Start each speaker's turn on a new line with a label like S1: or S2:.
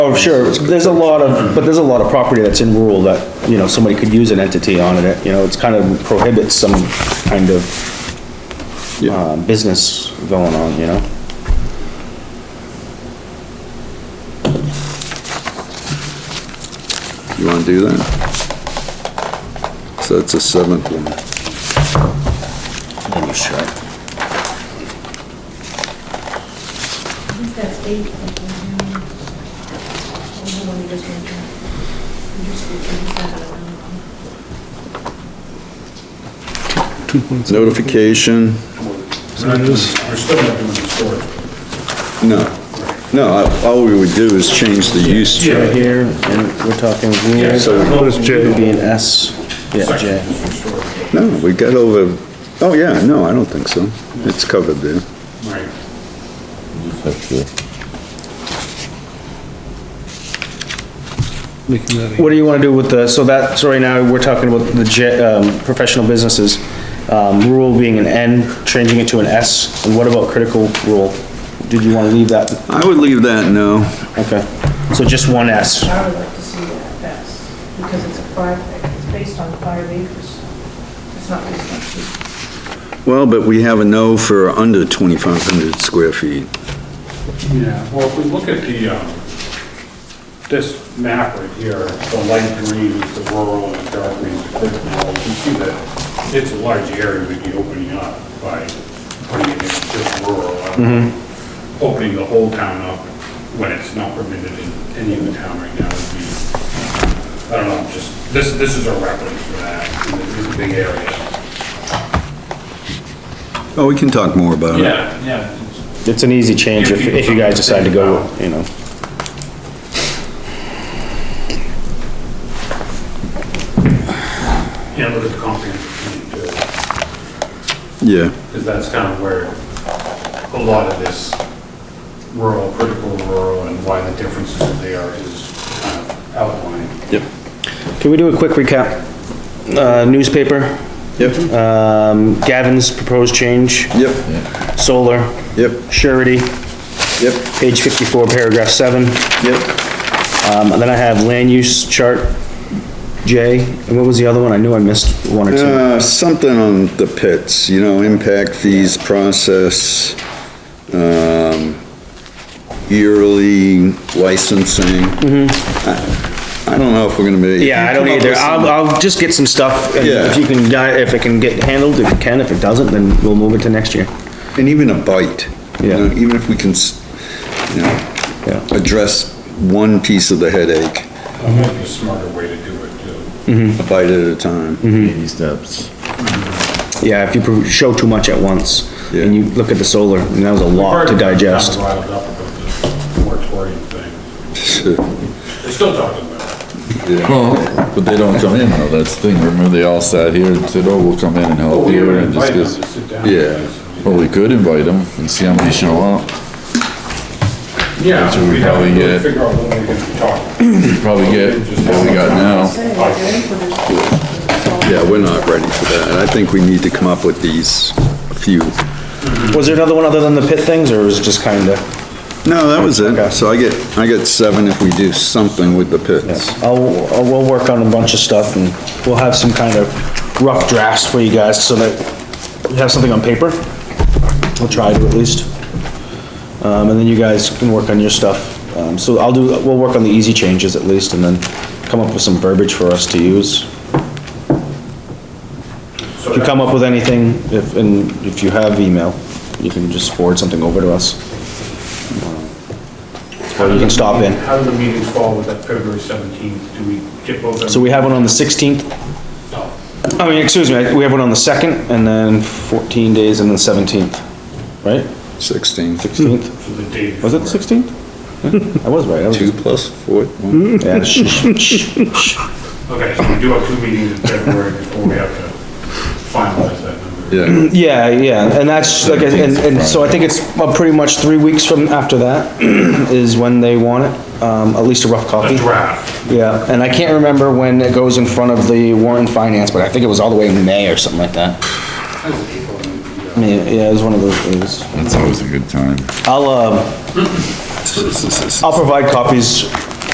S1: Oh, sure, there's a lot of, but there's a lot of property that's in rural that, you know, somebody could use an entity on it, you know, it's kind of prohibits some kind of uh, business going on, you know?
S2: Uh, You wanna do that? So that's the seventh one.
S1: Let me check.
S3: I think that's eight. I think. Oh, hold on, you just went there. You just- you just had it around.
S2: Notification,
S4: We're still not doing the storage.
S2: no. No, I- all we would do is change the use chart.
S1: Right here, and we're talking here,
S4: Yes,
S1: so
S4: notice
S1: it would
S4: J.
S1: be an S, yeah, J.
S2: No, we got over, oh yeah, no, I don't think so. It's covered there.
S4: Right.
S5: Making that a-
S1: What do you wanna do with the, so that, so right now, we're talking about the J, um, professional businesses, um, rural being an N, changing it to an S, and what about critical rural? Did you wanna leave that
S2: I would leave that no.
S1: Okay, so just one S.
S3: I would like to see that, that's, because it's a five, it's based on five acres. It's not based on two.
S2: Well, but we have a no for under 2,500 square feet.
S4: Yeah, well, if we look at the, um, this map right here, the light green is the rural and the dark green is the critical rural, you can see that it's a large area we'd be opening up by putting it in just rural. I mean, Opening the whole town up when it's not permitted in any of the town right now would be, I don't know, just, this, this is a reference for that, and it is a big area.
S2: Oh, we can talk more about it.
S4: Yeah, yeah.
S1: It's an easy change if, if you guys decide to go, you know.
S4: Yeah, look at the comprehensive plan too,
S2: Yeah.
S4: because that's kind of where a lot of this rural, critical rural, and why the differences are there is kind of outlined.
S2: Yep.
S1: Can we do a quick recap? Uh, newspaper,
S2: Yep,
S1: um, Gavin's proposed change,
S2: yep,
S1: solar,
S2: yep,
S1: surety,
S2: yep,
S1: page fifty-four, paragraph seven.
S2: yep.
S1: Um, and then I have land use chart, J, and what was the other one? I knew I missed one or two.
S2: Uh, something on the pits, you know, impact fees process, um, yearly licensing. I I don't know if we're gonna be.
S1: Mm-hmm. Yeah, I don't either. I'll, I'll just get some stuff, and if you can, di- if it can get handled, if it can, if it doesn't, then we'll move it to next year.
S2: And even a bite, you
S1: Yeah.
S2: know, even if we can, s- you know,
S1: Yeah.
S2: address one piece of the headache,
S4: That might
S1: Mm-hmm.
S4: be a smarter way to do it too.
S2: a bite at a time.
S1: Mm-hmm.
S6: baby steps.
S1: Yeah, if you pro- show too much at once, and you look at the solar, and that was a lot to digest.
S4: Kind of riled up about this moratorium thing. They're still talking about it.
S6: Well, but they don't come in though, that's the thing, remember they all sat here and said, oh, we'll come in and help
S4: We
S6: you
S4: were
S6: and
S4: invited them to
S6: discuss.
S4: sit down.
S2: Yeah.
S6: Well, we could invite them and see how many show up, That's what
S4: Yeah,
S6: we
S4: we have
S6: probably
S4: to
S6: get.
S4: figure out when we're gonna be talking.
S6: probably get what we got now.
S3: Say, like, the input is-
S2: Yeah, we're not ready for that, and I think we need to come up with these few.
S1: Was there another one other than the pit things, or was it just kinda?
S2: No, that was
S1: Okay.
S2: it. So I get, I get seven if we do something with the pits.
S1: I'll, I'll- we'll work on a bunch of stuff, and we'll have some kind of rough drafts for you guys, so that you have something on paper. We'll try to at least. Um, and then you guys can work on your stuff. Um, so I'll do, we'll work on the easy changes at least, and then come up with some verbiage for us to use.
S4: So
S1: If you
S4: that-
S1: come up with anything, if, and if you have email, you can just forward something over to us. Or you can stop in.
S4: How do the meetings fall with that February 17th? Do we get both of them?
S1: So we have one on the 16th,
S4: No.
S1: I mean, excuse me, we have one on the 2nd, and then 14 days, and then 17th, right?
S2: Sixteen.
S1: 16th,
S4: So the day
S1: was it
S4: before.
S1: 16th? I was right, I was,
S2: Two plus four. one.
S1: yeah, shh, shh, shh.
S4: Okay, so we do have two meetings in February before we have to finalize that number.
S2: Yeah,
S1: yeah, yeah, and that's, like, and, and so I think it's uh, pretty much three weeks from after that is when they want it, um, at least a rough copy.
S4: A draft,
S1: Yeah, and I can't remember when it goes in front of the warrant and finance, but I think it was all the way in May or something like that.
S4: that's April, and,
S1: I mean, yeah, it was one of those, it was,
S6: That's always a good time.
S1: I'll, um, I'll provide copies